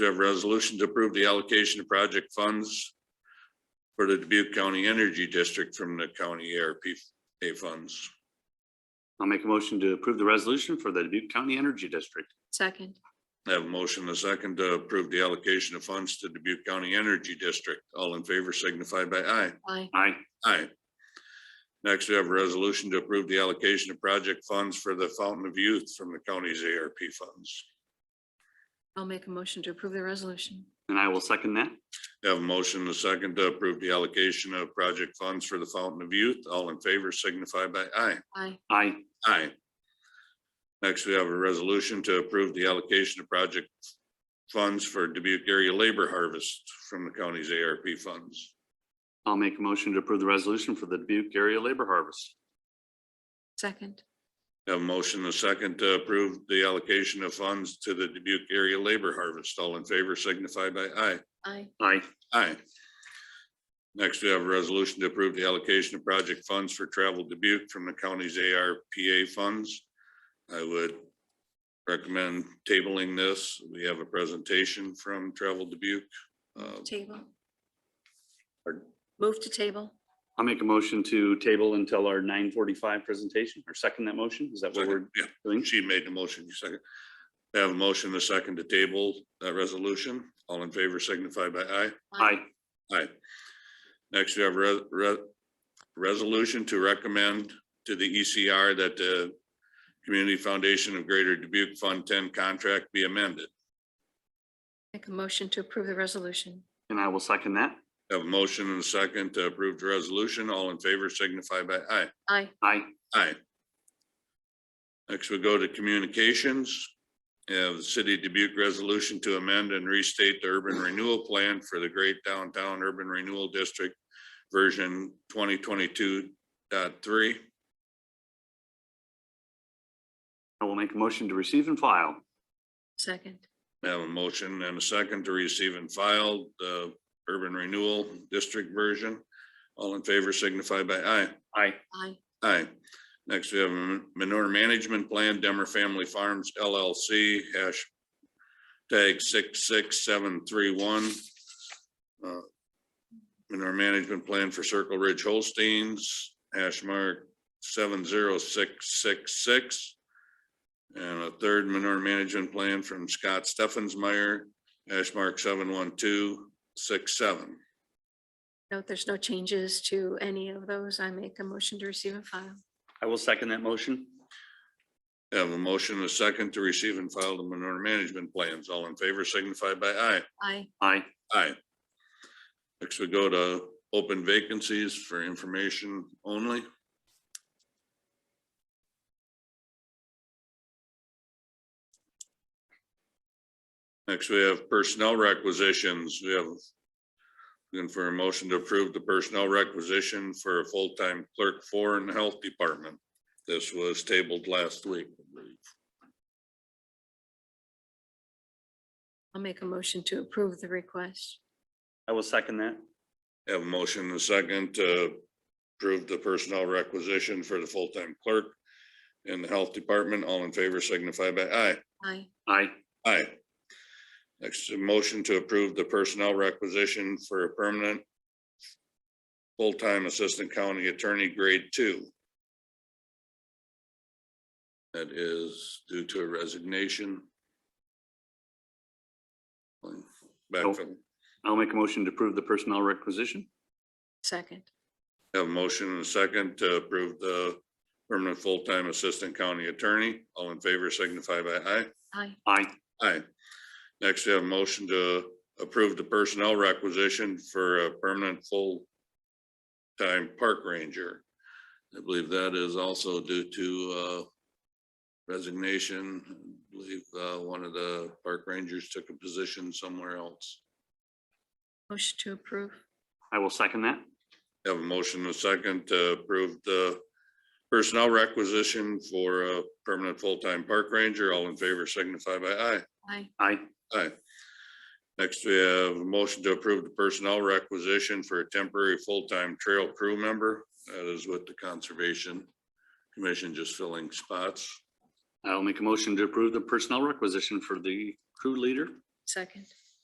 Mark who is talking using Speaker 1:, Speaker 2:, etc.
Speaker 1: We have a resolution to approve the allocation of project funds for the Dubuque County Energy District from the county ARPA funds.
Speaker 2: I'll make a motion to approve the resolution for the Dubuque County Energy District.
Speaker 3: second,
Speaker 1: I have a motion, and a second to approve the allocation of funds to Dubuque County Energy District. All in favor signify by aye.
Speaker 3: aye,
Speaker 2: Aye.
Speaker 1: Aye. Next, we have a resolution to approve the allocation of project funds for the Fountain of Youth from the county's ARP funds.
Speaker 3: I'll make a motion to approve the resolution,
Speaker 2: And I will second that.
Speaker 1: I Have a motion, and a second to approve the allocation of project funds for the Fountain of Youth. All in favor signify by aye.
Speaker 3: aye,
Speaker 2: Aye.
Speaker 1: Aye. Next, we have a resolution to approve the allocation of project funds for Dubuque area labor harvest from the county's ARP funds.
Speaker 2: I'll make a motion to approve the resolution for the Dubuque Area Labor Harvest.
Speaker 3: second,
Speaker 1: Have a motion, a second to approve the allocation of funds to the Dubuque area labor harvest. All in favor signify by aye.
Speaker 3: aye,
Speaker 2: Aye.
Speaker 1: Aye. Next, we have a resolution to approve the allocation of project funds for travel Dubuque from the county's ARPA funds. I would recommend tabling this. We have a presentation from Travel Dubuque. Uh,
Speaker 3: table.
Speaker 1: Pardon?
Speaker 3: Move to table,
Speaker 2: I'll make a motion to table until our nine forty-five presentation or second that motion. Is that what we're
Speaker 1: Yeah,
Speaker 2: doing?
Speaker 1: she made the motion, you second. I Have a motion, a second to table that resolution. All in favor signify by aye.
Speaker 2: Aye.
Speaker 1: Aye. Next, we have re- re- resolution to recommend to the ECR that the Community Foundation of Greater Dubuque Fund Ten contract be amended.
Speaker 3: make a motion to approve the resolution,
Speaker 2: And I will second that.
Speaker 1: Have a motion and a second to approve the resolution. All in favor signify by aye.
Speaker 3: aye,
Speaker 2: Aye.
Speaker 1: Aye. Next, we go to communications. Have the City of Dubuque resolution to amend and restate the urban renewal plan for the Great Downtown Urban Renewal District, version 2022.3.
Speaker 2: I will make a motion to receive and file.
Speaker 3: second,
Speaker 1: I Have a motion and a second to receive and file the urban renewal district version. All in favor signify by aye.
Speaker 2: Aye.
Speaker 3: aye,
Speaker 1: Aye. Next, we have a manure management plan, Demmer Family Farms LLC, hash tag six, six, seven, three, one. Uh, Manure management plan for Circle Ridge Holsteins, hash mark seven, zero, six, six, six. And a third manure management plan from Scott Steffensmeyer, hash mark seven, one, two, six, seven.
Speaker 3: note there's no changes to any of those, I make a motion to receive and file,
Speaker 2: I will second that motion.
Speaker 1: I Have a motion, and a second to receive and file the manure management plans. All in favor signify by aye.
Speaker 3: aye,
Speaker 2: Aye.
Speaker 1: Aye. Next we go to open vacancies for information only. Next, we have personnel requisitions. We have looking for a motion to approve the personnel requisition for a full-time clerk for in the health department. This was tabled last week. I believe.
Speaker 3: I'll make a motion to approve the request,
Speaker 2: I will second that.
Speaker 1: Have a motion and a second to approve the personnel requisition for the full-time clerk in the health department. All in favor signify by aye.
Speaker 3: aye,
Speaker 2: Aye.
Speaker 1: Aye. Next, a motion to approve the personnel requisition for a permanent full-time assistant county attorney grade two. That is due to a resignation. Backfill.
Speaker 2: I'll make a motion to approve the personnel requisition.
Speaker 3: second,
Speaker 1: Have a motion and a second to approve the permanent full-time assistant county attorney. All in favor signify by aye.
Speaker 3: aye,
Speaker 2: Aye.
Speaker 1: Aye. Next, we have a motion to approve the personnel requisition for a permanent full-time park ranger. I believe that is also due to uh, resignation. I believe uh, one of the park rangers took a position somewhere else.
Speaker 3: motion to approve,
Speaker 2: I will second that.
Speaker 1: Have a motion and a second to approve the personnel requisition for a permanent full-time park ranger. All in favor signify by aye.
Speaker 3: aye,
Speaker 2: Aye.
Speaker 1: Aye. Next, we have a motion to approve the personnel requisition for a temporary full-time trail crew member. That is with the Conservation Commission just filling spots.
Speaker 2: I'll make a motion to approve the personnel requisition for the crew leader.
Speaker 3: second,